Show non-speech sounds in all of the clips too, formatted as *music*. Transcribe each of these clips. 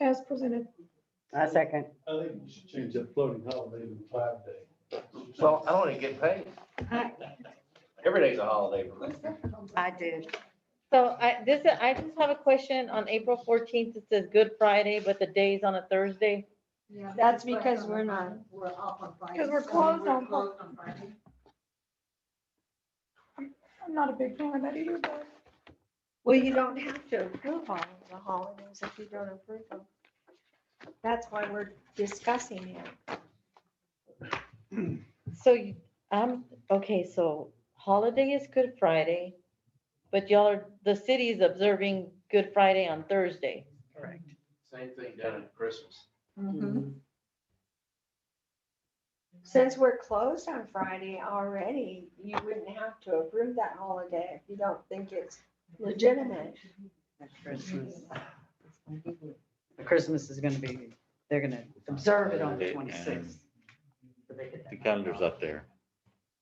as presented. I second. I think we should change that floating holiday to five day. Well, I want to get paid. I- Every day's a holiday for me. I did. So I, this, I just have a question. On April fourteenth, it says Good Friday, but the day is on a Thursday. That's because we're not. We're off on Friday. 'Cause we're so closed on- closed on Friday. I'm not a big fan of that either, but Well, you don't have to approve all of the holidays if you don't approve them. That's why we're discussing it. So you, um, okay, so holiday is Good Friday, but y'all are, the city is observing Good Friday on Thursday. Correct. Same thing done at Christmas. Mm-hmm. Since we're closed on Friday already, you wouldn't have to approve that holiday if you don't think it's legitimate. At Christmas. Christmas is gonna be, they're gonna observe it on the It- twenty-sixth. The calendar's up there.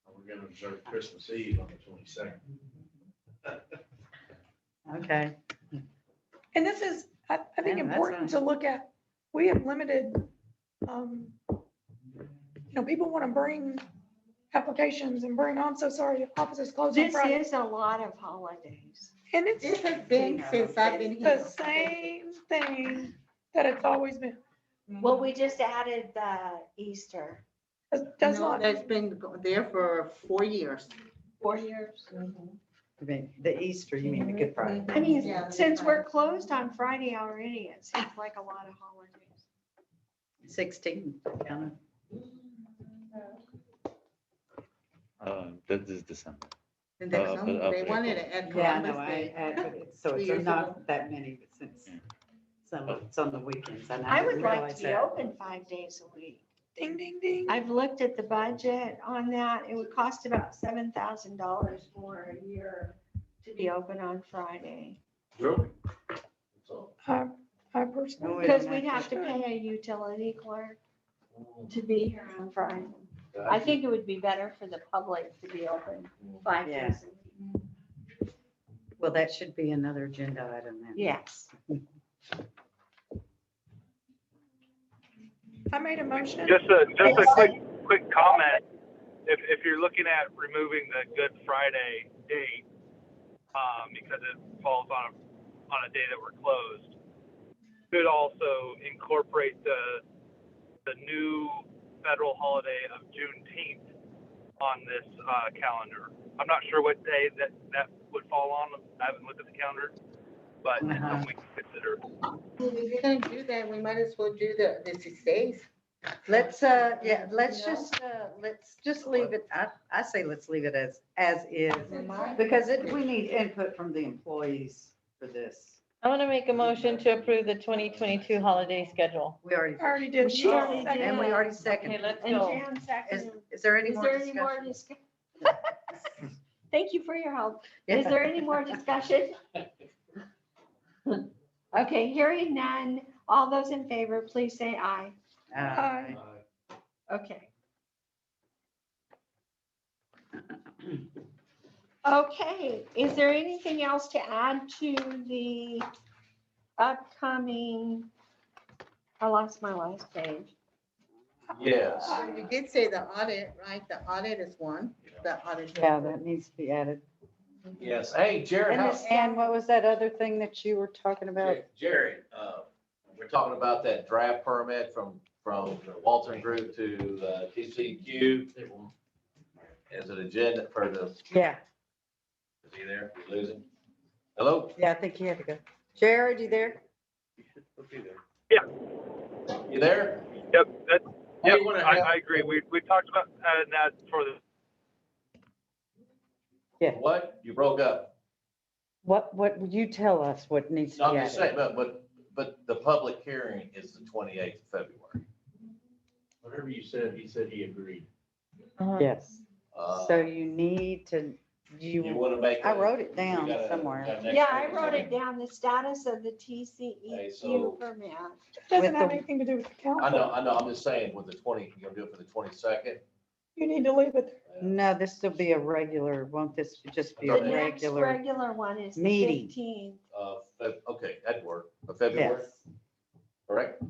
We're going to observe Christmas Eve on the twenty-second. Okay, And this is, I, I think Yeah, that's important to look at, we have limited, um, you know, people want to bring applications and bring, I'm so sorry, office is closed on This Friday. is a lot of holidays. And it's It has been since I've been here. the same thing that it's always been. Well, we just added the Easter. That's- That's No, not, That's been go- there for four years. Four years. I mean, the Easter, you mean the Good Friday. I mean, Yeah, that's since we're right. closed on Friday already, it seems like a lot of holidays. Sixteen, count it. Uh, This is December. And Uh, that's, but um, they up wanted it at Yeah, no, Columbus I, Day. I, but it's- so Two it's years not ago. that many, but since Yeah. some, it's on the weekends. and I would didn't like realize to be that. open five days a week. ding, ding, ding. I've looked at the budget on that. It would cost about seven thousand dollars for a year to be open on Friday. Really? That's all. I, I personally, Wait a Because minute. we'd have to pay a utility clerk to be here on Friday. Yeah, I think it would be better for the public to be open five Yeah. days a week. Well, that should be another agenda item then. Yes. I made a motion. Just a, just a quick, quick comment. If, if you're looking at removing the Good Friday date, um, because it falls on, a- on a day that we're closed, could also incorporate the, the new federal holiday of Juneteenth on this, uh, calendar. I'm not sure what day that, that would fall on. I haven't looked at the calendar, but it's Uh-huh. something we can consider. If you're gonna do that, we might as well do the, the six days. Let's, uh, yeah, let's You know? just, uh, let's just leave it, I, I say let's leave it as, as is. Mine. Because it, we need input from the employees for this. I'm gonna make a motion to approve the twenty twenty-two holiday schedule. We already, I already did. She already Second. and we already seconded. let's And go. Jan Is, seconded. is there any Is more there any more discussion? discussion? *laughs* Thank you for your help. Is there any more discussion? Okay, hearing none. All those in favor, please say aye. Uh, Uh, Okay. Okay, is there anything else to add to the upcoming? I lost my last page. Yes. You did say the audit, right? The audit is one, the audit. Yeah, that needs to be added. Yes. Hey, Jared, And how's, this- and what was that other thing that you were talking about? Jared, uh, we're talking about that draft permit from, from the Walton Group to uh, TCQ. As an agenda for the, is Yeah, he there? We Lose him? Hello? yeah, I think he had to go. Jared, you there? Yeah. You there? Yep, that, Hey, yep, you wanna I, have- I agree. We, we talked about, uh, that for the Yeah. What? You broke up. What, what, would you tell us what needs to I'm be just added? saying, but, but, but the public hearing is the twenty-eighth of February. Whatever you said, he said he agreed. Uh-huh. Yes, Uh, so you need to, You you, wanna make. I a- wrote it we down gotta- somewhere. gotta next Yeah, I week or wrote it something. down, the status of the Okay, so- TCEQ permit. Doesn't have the- anything to do with the I know, council. I know, I'm just saying, with the twenty, you're gonna do it for the twenty-second? You need to leave it. no, this will be a regular, won't this just be The a next regular? regular one is the meeting. fifteenth. Uh, Feb- okay, that'd work, for February. Yes, correct?